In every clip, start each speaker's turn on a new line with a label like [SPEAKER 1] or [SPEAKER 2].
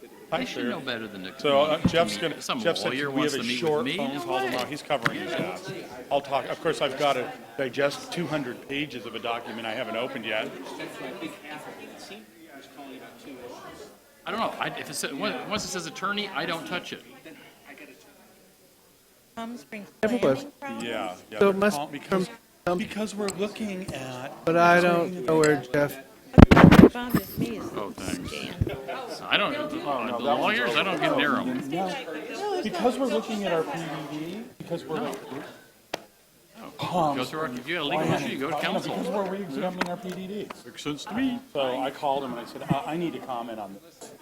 [SPEAKER 1] They
[SPEAKER 2] I'm
[SPEAKER 1] should
[SPEAKER 2] sure.
[SPEAKER 1] know better than to.
[SPEAKER 2] So uh,
[SPEAKER 1] come
[SPEAKER 2] Jeff's
[SPEAKER 1] meet-
[SPEAKER 2] gonna,
[SPEAKER 1] Some
[SPEAKER 2] Jeff said,
[SPEAKER 1] lawyer
[SPEAKER 2] we have
[SPEAKER 1] wants to
[SPEAKER 2] a
[SPEAKER 1] meet with
[SPEAKER 2] short
[SPEAKER 1] me?
[SPEAKER 2] phone
[SPEAKER 1] No
[SPEAKER 2] call
[SPEAKER 1] way.
[SPEAKER 2] tomorrow, he's covering his ass. I'll talk, of course, I've got to digest two hundred pages of a document I haven't opened yet.
[SPEAKER 1] I don't know. I, if it says, once it says attorney, I don't touch it.
[SPEAKER 3] Palm Springs
[SPEAKER 4] Never was.
[SPEAKER 3] planning problems?
[SPEAKER 2] Yeah, yeah.
[SPEAKER 4] So
[SPEAKER 2] they're
[SPEAKER 4] it must
[SPEAKER 2] call-
[SPEAKER 4] come
[SPEAKER 2] Because,
[SPEAKER 4] from,
[SPEAKER 2] because we're looking at,
[SPEAKER 4] but I don't know where Jeff,
[SPEAKER 3] Found is me is
[SPEAKER 1] Oh, thanks.
[SPEAKER 3] Dan.
[SPEAKER 1] I don't, the the lawyers, I don't get near them.
[SPEAKER 2] because we're looking at our PDD, because we're like.
[SPEAKER 1] Oh.
[SPEAKER 2] Palm
[SPEAKER 1] Go through, our- if you have a legal
[SPEAKER 2] Planning.
[SPEAKER 1] issue, you go
[SPEAKER 2] No,
[SPEAKER 1] to
[SPEAKER 2] Because we're
[SPEAKER 1] counsel.
[SPEAKER 2] re-examining our PDDs.
[SPEAKER 1] Makes sense to me.
[SPEAKER 2] Uh, So I called him and I said, I, I need to comment on this.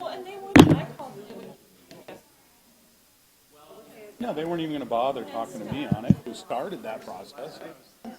[SPEAKER 5] Well, and they would, I called them, they would
[SPEAKER 2] No, they weren't even gonna bother talking to me on it, who started that process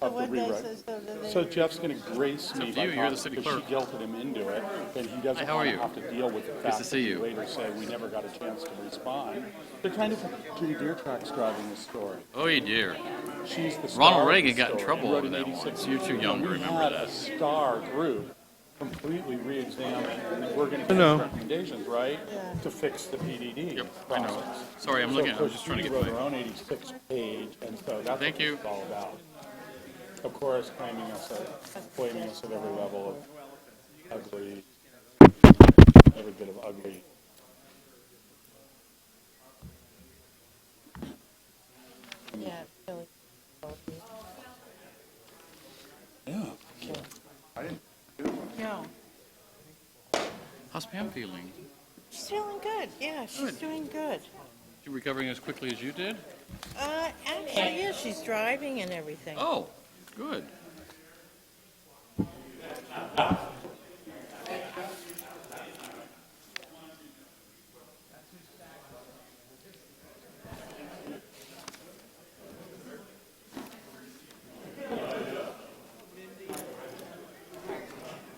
[SPEAKER 2] of the
[SPEAKER 3] What day
[SPEAKER 2] rewrite.
[SPEAKER 3] says, so do they-
[SPEAKER 2] So Jeff's gonna grace me
[SPEAKER 1] up to
[SPEAKER 2] by
[SPEAKER 1] you, you're the
[SPEAKER 2] talking,
[SPEAKER 1] city
[SPEAKER 2] because she
[SPEAKER 1] clerk.
[SPEAKER 2] guilted him into it, and he
[SPEAKER 1] Hi,
[SPEAKER 2] doesn't
[SPEAKER 1] how are
[SPEAKER 2] wanna
[SPEAKER 1] you?
[SPEAKER 2] have to deal with the fact
[SPEAKER 1] to
[SPEAKER 2] that
[SPEAKER 1] see
[SPEAKER 2] you
[SPEAKER 1] you.
[SPEAKER 2] later say, we never got a chance to respond. They're kind of two deer tracks driving this story.
[SPEAKER 1] Oh, you dear.
[SPEAKER 2] She's the star
[SPEAKER 1] Ronald
[SPEAKER 2] of the
[SPEAKER 1] Reagan got in
[SPEAKER 2] story.
[SPEAKER 1] trouble
[SPEAKER 2] He wrote
[SPEAKER 1] over
[SPEAKER 2] an
[SPEAKER 1] that
[SPEAKER 2] 86
[SPEAKER 1] once. You're too
[SPEAKER 2] book.
[SPEAKER 1] young to
[SPEAKER 2] We
[SPEAKER 1] remember
[SPEAKER 2] had
[SPEAKER 1] that.
[SPEAKER 2] a star group completely re-examined, and we're gonna
[SPEAKER 4] know.
[SPEAKER 2] get recommendations, right? To fix the PDD
[SPEAKER 1] Yep, I know.
[SPEAKER 2] process.
[SPEAKER 1] Sorry, I'm
[SPEAKER 2] So,
[SPEAKER 1] looking,
[SPEAKER 2] of
[SPEAKER 1] I'm
[SPEAKER 2] course,
[SPEAKER 1] just trying to
[SPEAKER 2] she
[SPEAKER 1] get
[SPEAKER 2] wrote
[SPEAKER 1] my,
[SPEAKER 2] her own 86 page, and so that's
[SPEAKER 1] Thank
[SPEAKER 2] what
[SPEAKER 1] you.
[SPEAKER 2] it's all about. Of course, claiming us, at- blaming us at every level of ugly, every bit of ugly.
[SPEAKER 3] Yeah, really.
[SPEAKER 2] Yeah.
[SPEAKER 3] No.
[SPEAKER 1] how's Pam feeling?
[SPEAKER 3] She's feeling good, yeah, she's doing good.
[SPEAKER 1] She recovering as quickly as you did?
[SPEAKER 3] Uh, actually, yeah, she's driving and everything.
[SPEAKER 1] Oh, good.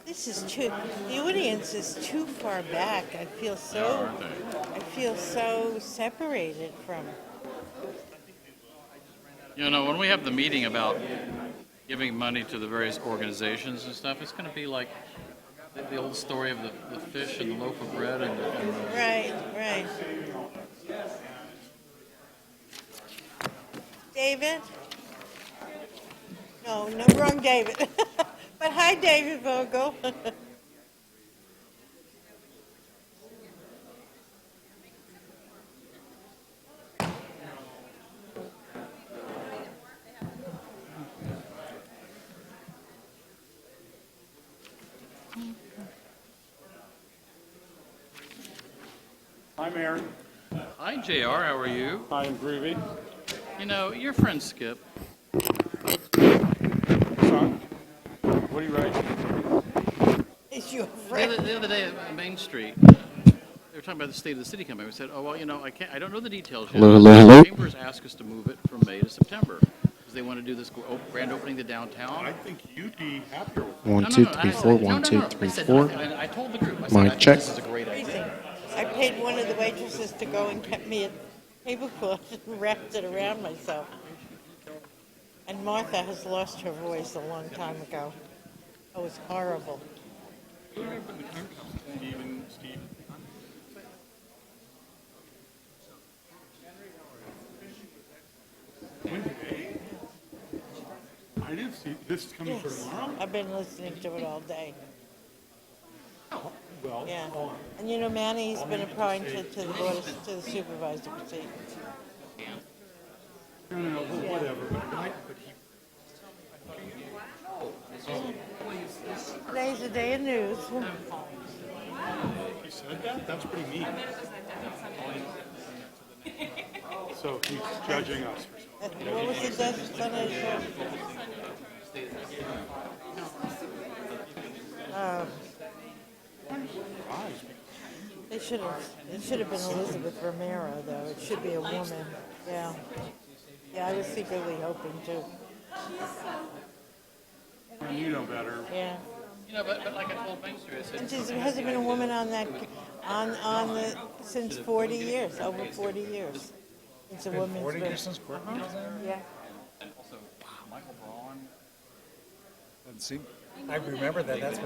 [SPEAKER 3] This is too, the audience is too far back. I feel
[SPEAKER 1] Yeah,
[SPEAKER 3] so,
[SPEAKER 1] aren't they?
[SPEAKER 3] I feel so separated from,
[SPEAKER 1] You know, when we have the meeting about giving money to the various organizations and stuff, it's going to be like the, the old story of the, the fish and the loaf of bread and the, and the
[SPEAKER 3] right, right. David? No, no, wrong David. But hi, David Vogel.
[SPEAKER 2] I'm Aaron.
[SPEAKER 1] Hi, JR. How are you?
[SPEAKER 2] I am Groovy.
[SPEAKER 1] You know, your friend Skip.
[SPEAKER 2] Son, What do you write?
[SPEAKER 3] Is your
[SPEAKER 1] The
[SPEAKER 3] friend?
[SPEAKER 1] other, the other day at Main Street, they were talking about the state of the city coming. We said, oh, well, you know, I can't, I don't know the details yet.
[SPEAKER 4] Hello, hello, hello.
[SPEAKER 1] The Chambers asked us to move it from May to September because they want to do this gr- op- grand opening to downtown.
[SPEAKER 6] I think you'd be happier with
[SPEAKER 4] one,
[SPEAKER 1] No,
[SPEAKER 4] two,
[SPEAKER 1] no, no, I
[SPEAKER 4] three,
[SPEAKER 1] said-
[SPEAKER 4] four,
[SPEAKER 1] no,
[SPEAKER 4] one,
[SPEAKER 1] no,
[SPEAKER 4] two,
[SPEAKER 1] no. I
[SPEAKER 4] three,
[SPEAKER 1] said,
[SPEAKER 4] four.
[SPEAKER 1] I I told the group, I said, I
[SPEAKER 4] Mic
[SPEAKER 1] think
[SPEAKER 4] check.
[SPEAKER 1] this is a great idea.
[SPEAKER 3] Everything. I paid one of the waitresses to go and get me a tablecloth and wrapped it around myself. And Martha has lost her voice a long time ago. It was horrible.
[SPEAKER 6] Steven, Steve. Wednesday? I didn't see, this is coming for
[SPEAKER 3] Yes,
[SPEAKER 6] tomorrow?
[SPEAKER 3] I've been listening to it all day.
[SPEAKER 6] Oh, Well,
[SPEAKER 3] Yeah, and you know Manny's been appointed to the board, of- to the supervisor seat.
[SPEAKER 6] no, no, no, whatever, but I, but he
[SPEAKER 3] Today's the day of news.
[SPEAKER 6] He said that? That's pretty mean. So he's judging us for something.
[SPEAKER 3] What was the Des- Sunday show? Uh,
[SPEAKER 6] Surprised.
[SPEAKER 3] It should have, it should have been Elizabeth Romero, though. It should be a woman. Yeah. Yeah, I was secretly hoping to.
[SPEAKER 6] When you know better.
[SPEAKER 3] Yeah.
[SPEAKER 1] You know, but, but like I told Main Street, I said,
[SPEAKER 3] And there's- hasn't been a woman on that, on, on the, since 40 years, over 40 years. It's a woman's. 40 years since Yeah.
[SPEAKER 7] I remember that. That's